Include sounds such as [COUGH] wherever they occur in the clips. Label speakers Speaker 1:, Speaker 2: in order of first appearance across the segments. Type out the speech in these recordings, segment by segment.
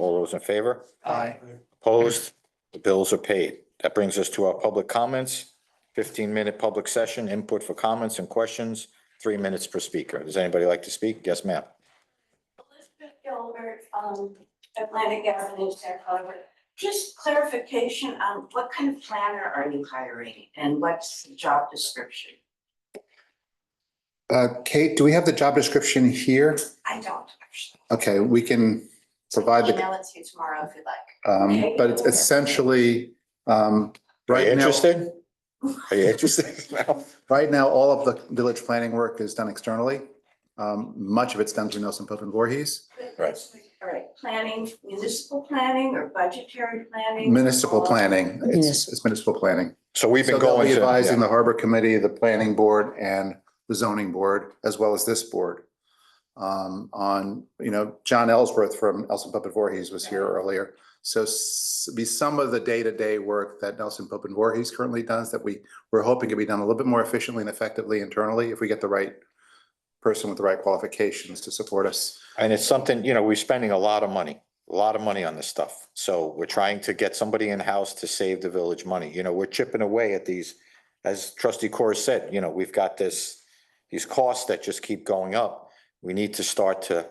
Speaker 1: those in favor?
Speaker 2: Aye.
Speaker 1: Opposed? The bills are paid. That brings us to our public comments. Fifteen minute public session, input for comments and questions, three minutes per speaker. Does anybody like to speak? Yes, ma'am.
Speaker 3: Elizabeth Gilbert, um, Atlantic Avenue, Sag Harbor. Just clarification, um, what kind of planner are you hiring and what's the job description?
Speaker 2: Uh, Kate, do we have the job description here?
Speaker 3: I don't actually.
Speaker 2: Okay, we can provide the,
Speaker 3: Email it to you tomorrow if you'd like.
Speaker 2: um, but it's essentially, um,
Speaker 1: Are you
Speaker 2: right now,
Speaker 1: interested? Are
Speaker 2: [LAUGHS]
Speaker 1: you interested? No.
Speaker 2: right now, all of the village planning work is done externally. Um, much of it's done through Nelson Pope and Voorhees.
Speaker 1: Right.
Speaker 3: All right, planning, municipal planning or budgetary planning?
Speaker 2: Municipal
Speaker 3: or-
Speaker 2: planning, it's, it's municipal planning.
Speaker 1: So we've
Speaker 2: So
Speaker 1: been
Speaker 2: they'll
Speaker 1: going.
Speaker 2: be
Speaker 1: to-
Speaker 2: advising
Speaker 1: yeah.
Speaker 2: the harbor committee, the planning board and the zoning board, as well as this board. Um, on, you know, John Ellsworth from Nelson Pope and Voorhees was here earlier. So s- be some of the day-to-day work that Nelson Pope and Voorhees currently does that we, we're hoping can be done a little bit more efficiently and effectively internally if we get the right person with the right qualifications to support us.
Speaker 1: And it's something, you know, we're spending a lot of money, a lot of money on this stuff. So we're trying to get somebody in-house to save the village money. You know, we're chipping away at these. As trustee Corr said, you know, we've got this, these costs that just keep going up. We need to start to.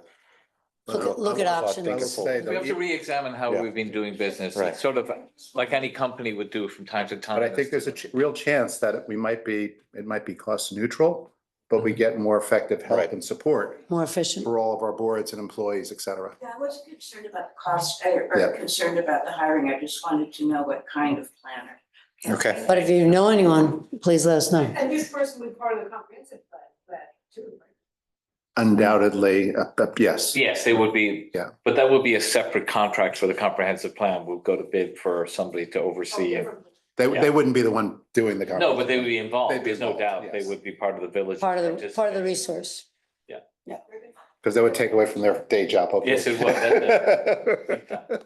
Speaker 4: Look at- look at
Speaker 1: Start
Speaker 4: options.
Speaker 1: thinking
Speaker 2: I would say
Speaker 1: forward.
Speaker 2: though,
Speaker 5: We have to re-examine how
Speaker 1: Yeah.
Speaker 5: we've been doing business,
Speaker 1: Right.
Speaker 5: It's sort of like any company would do from time to time.
Speaker 2: But I think there's a ch- real chance that we might be, it might be cost neutral, but
Speaker 5: Mm-hmm.
Speaker 2: we get more effective help
Speaker 1: Right.
Speaker 2: and support
Speaker 4: more efficient.
Speaker 2: for all of our boards and employees, et cetera.
Speaker 3: Yeah, I wasn't concerned about the cost or or
Speaker 2: Yeah.
Speaker 3: concerned about the hiring. I just wanted to know what kind of planner.
Speaker 1: Okay.
Speaker 4: But if you know anyone, please let us know.
Speaker 6: And this person would part of the comprehensive plan, plan too. right?
Speaker 2: Undoubtedly, uh, uh, yes.
Speaker 5: Yes, they would be.
Speaker 2: Yeah.
Speaker 5: But that would be a separate contract for the comprehensive plan. We'll go to bid for somebody to oversee
Speaker 4: Oh,
Speaker 5: it.
Speaker 2: They, they wouldn't be the one doing the.
Speaker 5: No, but they would be
Speaker 2: They'd
Speaker 5: involved.
Speaker 2: be
Speaker 5: There's no
Speaker 2: involved,
Speaker 5: doubt. They
Speaker 2: yes.
Speaker 5: would be part of the village.
Speaker 4: Part of the, part of the
Speaker 5: participants.
Speaker 4: resource.
Speaker 2: Because that would take away from their day job, hopefully.
Speaker 5: Yes,
Speaker 2: [LAUGHS]
Speaker 5: it would. That-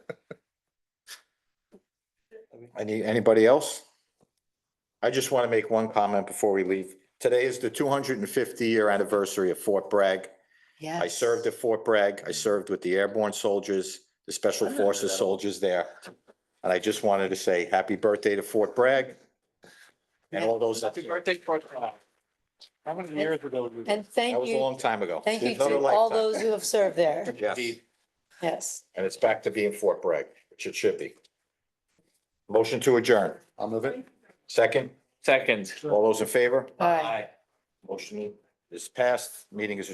Speaker 1: Any, anybody else? I just want to make one comment before we leave. Today is the two hundred and fifty year anniversary of Fort Bragg.
Speaker 4: Yeah.
Speaker 1: I served at Fort Bragg. I served with the airborne soldiers, the special forces soldiers there. And I just wanted to say happy birthday to Fort Bragg. And all those, that
Speaker 5: Happy birthday, Fort Bragg. How many years ago? did we-
Speaker 4: And thank
Speaker 1: was a
Speaker 4: you,
Speaker 1: long time ago.
Speaker 4: thank you
Speaker 1: Another
Speaker 4: to all
Speaker 1: lifetime.
Speaker 4: those who have served there.
Speaker 1: Yes,
Speaker 5: Indeed.
Speaker 4: Yes.
Speaker 1: and it's back to being Fort Bragg, which it should be. Motion to adjourn.
Speaker 2: I'll move it.
Speaker 1: Second,
Speaker 5: Second.
Speaker 1: all those in favor?
Speaker 4: All right.
Speaker 5: Aye.
Speaker 1: Motion is passed. Meeting is adjourned.